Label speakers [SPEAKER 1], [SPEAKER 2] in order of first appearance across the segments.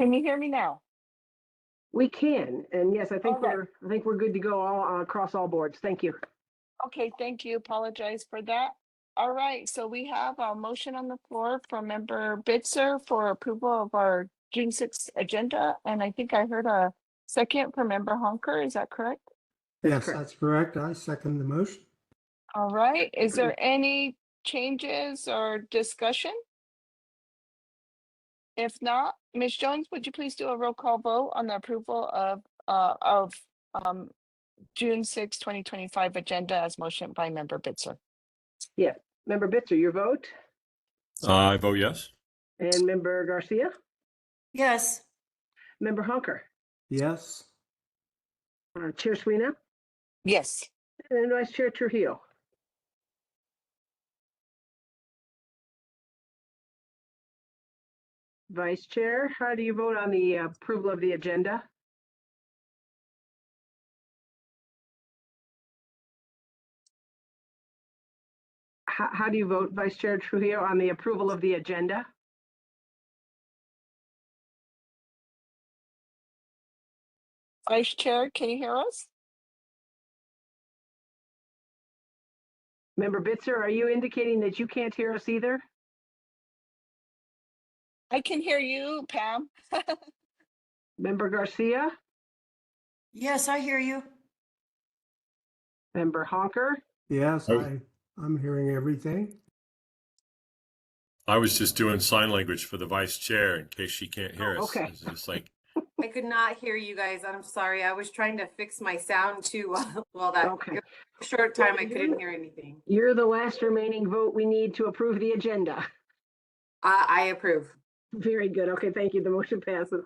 [SPEAKER 1] Can you hear me now?
[SPEAKER 2] We can, and yes, I think
[SPEAKER 1] All right.
[SPEAKER 2] we're, I think we're good to go all, uh, across all boards. Thank you.
[SPEAKER 1] Okay, thank you. Apologize for that. All right, so we have a motion on the floor from member Bitzer for approval of our June sixth agenda, and I think I heard a second from member Honker, is that correct?
[SPEAKER 3] Yes,
[SPEAKER 2] Correct.
[SPEAKER 3] that's correct. I second the motion.
[SPEAKER 1] All right, is there any changes or discussion? If not, Ms. Jones, would you please do a roll call vote on the approval of, uh, of, um, June sixth, twenty twenty-five agenda as motion by member Bitzer?
[SPEAKER 2] Member Bitzer, your vote,
[SPEAKER 4] I Uh, vote yes.
[SPEAKER 2] and member Garcia,
[SPEAKER 5] Yes.
[SPEAKER 2] member Honker,
[SPEAKER 3] Yes,
[SPEAKER 2] uh, Chair Sweeney,
[SPEAKER 1] Yes.
[SPEAKER 2] and Vice Chair Trujillo. Vice Chair, how do you vote on the approval of the agenda? How, how do you vote, Vice Chair Trujillo, on the approval of the agenda?
[SPEAKER 1] Vice Chair, can you hear us?
[SPEAKER 2] Member Bitzer, are you indicating that you can't hear us either?
[SPEAKER 1] I can hear you, Pam.
[SPEAKER 2] Member Garcia,
[SPEAKER 5] Yes, I hear you.
[SPEAKER 2] Member Honker,
[SPEAKER 3] yes,
[SPEAKER 4] Oh.
[SPEAKER 3] I, I'm hearing everything.
[SPEAKER 4] I was just doing sign language for the vice chair in case she can't hear
[SPEAKER 2] Oh,
[SPEAKER 4] us.
[SPEAKER 2] okay.
[SPEAKER 4] It's just like,
[SPEAKER 6] I could not hear you guys. I'm sorry. I was trying to fix my sound too. uh, Well, that
[SPEAKER 2] Okay.
[SPEAKER 6] it was a short time, I
[SPEAKER 2] you-
[SPEAKER 6] couldn't hear anything.
[SPEAKER 2] you're the last remaining vote we need to approve the agenda.
[SPEAKER 6] I, I approve.
[SPEAKER 2] Very good. Okay, thank you. The motion passes.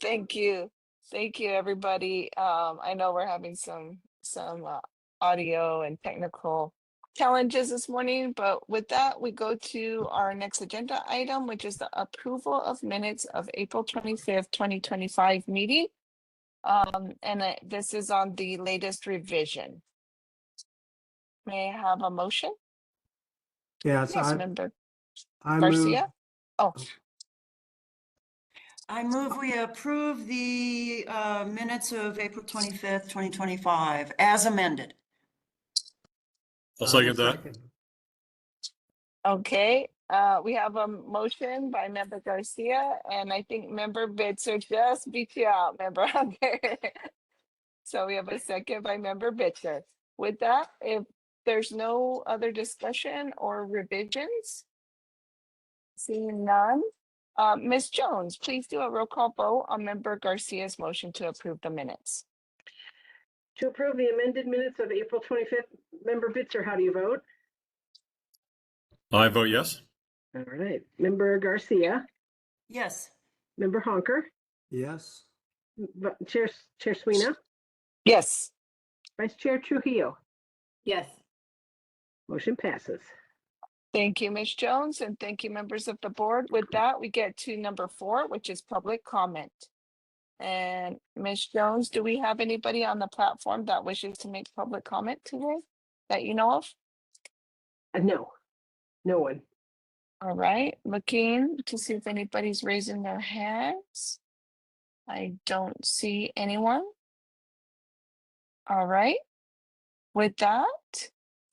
[SPEAKER 1] Thank you. Thank you, everybody. Um, I know we're having some, some, uh, audio and technical challenges this morning, but with that, we go to our next agenda item, which is the approval of minutes of April twenty-fifth, twenty twenty-five meeting. Um, and I- this is on the latest revision. May I have a motion?
[SPEAKER 3] Yes,
[SPEAKER 1] Yes,
[SPEAKER 3] I,
[SPEAKER 1] member
[SPEAKER 3] I move,
[SPEAKER 1] Garcia? Oh,
[SPEAKER 5] I move we approve the uh, minutes of April 25th, 2025, as amended.
[SPEAKER 4] I'll
[SPEAKER 3] I
[SPEAKER 4] second that.
[SPEAKER 3] second.
[SPEAKER 1] Okay, uh, we have a motion by member Garcia and I think member Bitzer just beat you out, member Hunter. So we have a second by member Bitzer. With that, if there's no other discussion or revisions, seeing none, uh, Ms. Jones, please do a roll call vote on member Garcia's motion to approve the minutes.
[SPEAKER 2] To approve the amended minutes of April 25th, Member Bitzer, how do you vote?
[SPEAKER 4] I vote yes.
[SPEAKER 2] All right. Member Garcia,
[SPEAKER 5] Yes.
[SPEAKER 2] Member Honker,
[SPEAKER 3] Yes,
[SPEAKER 2] V- Chair, Chair Sweeney,
[SPEAKER 1] Yes.
[SPEAKER 2] Vice Chair Trujillo.
[SPEAKER 6] Yes.
[SPEAKER 2] Motion passes.
[SPEAKER 1] Thank you, Ms. Jones, and thank you, members of the board. With that, we get to number four, which is public comment. And Ms. Jones, do we have anybody on the platform that wishes to make public comment today that you know of?
[SPEAKER 2] Uh, No, no one.
[SPEAKER 1] All right, looking to see if anybody's raising their hands. I don't see anyone. All right. With that,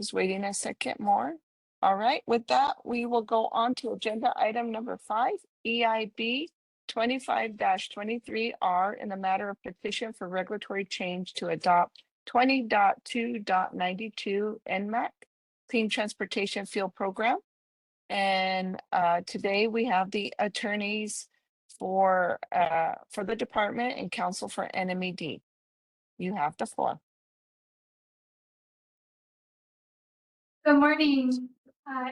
[SPEAKER 1] just waiting a second more. All right, with that, we will go on to agenda item number five, EIB twenty-five twenty-three R in the matter of petition for regulatory change to adopt 20.2.92 NMAC Clean Transportation Fuel Program. And uh, today we have the attorneys for uh, for the department and counsel for NMED. You have the floor.
[SPEAKER 7] Good morning. Uh,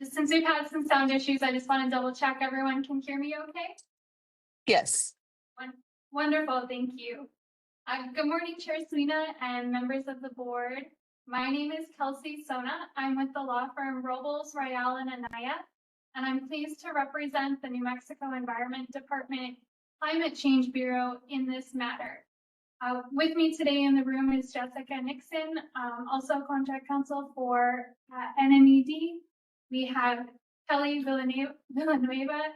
[SPEAKER 7] just Since we've had some sound issues, I just want to double check everyone can hear me okay?
[SPEAKER 1] Yes.
[SPEAKER 7] Wonderful, thank you. Uh, Good morning, Chair Sweeney and members of the board. My name is Kelsey Sona. I'm with the law firm Robles, Royale, and Anaya, and I'm pleased to represent the New Mexico Environment Department Climate Change Bureau in this matter. Uh, With me today in the room is Jessica Nixon, um, also contract counsel E for uh, NMED. We have Kelly Villane- Villanueva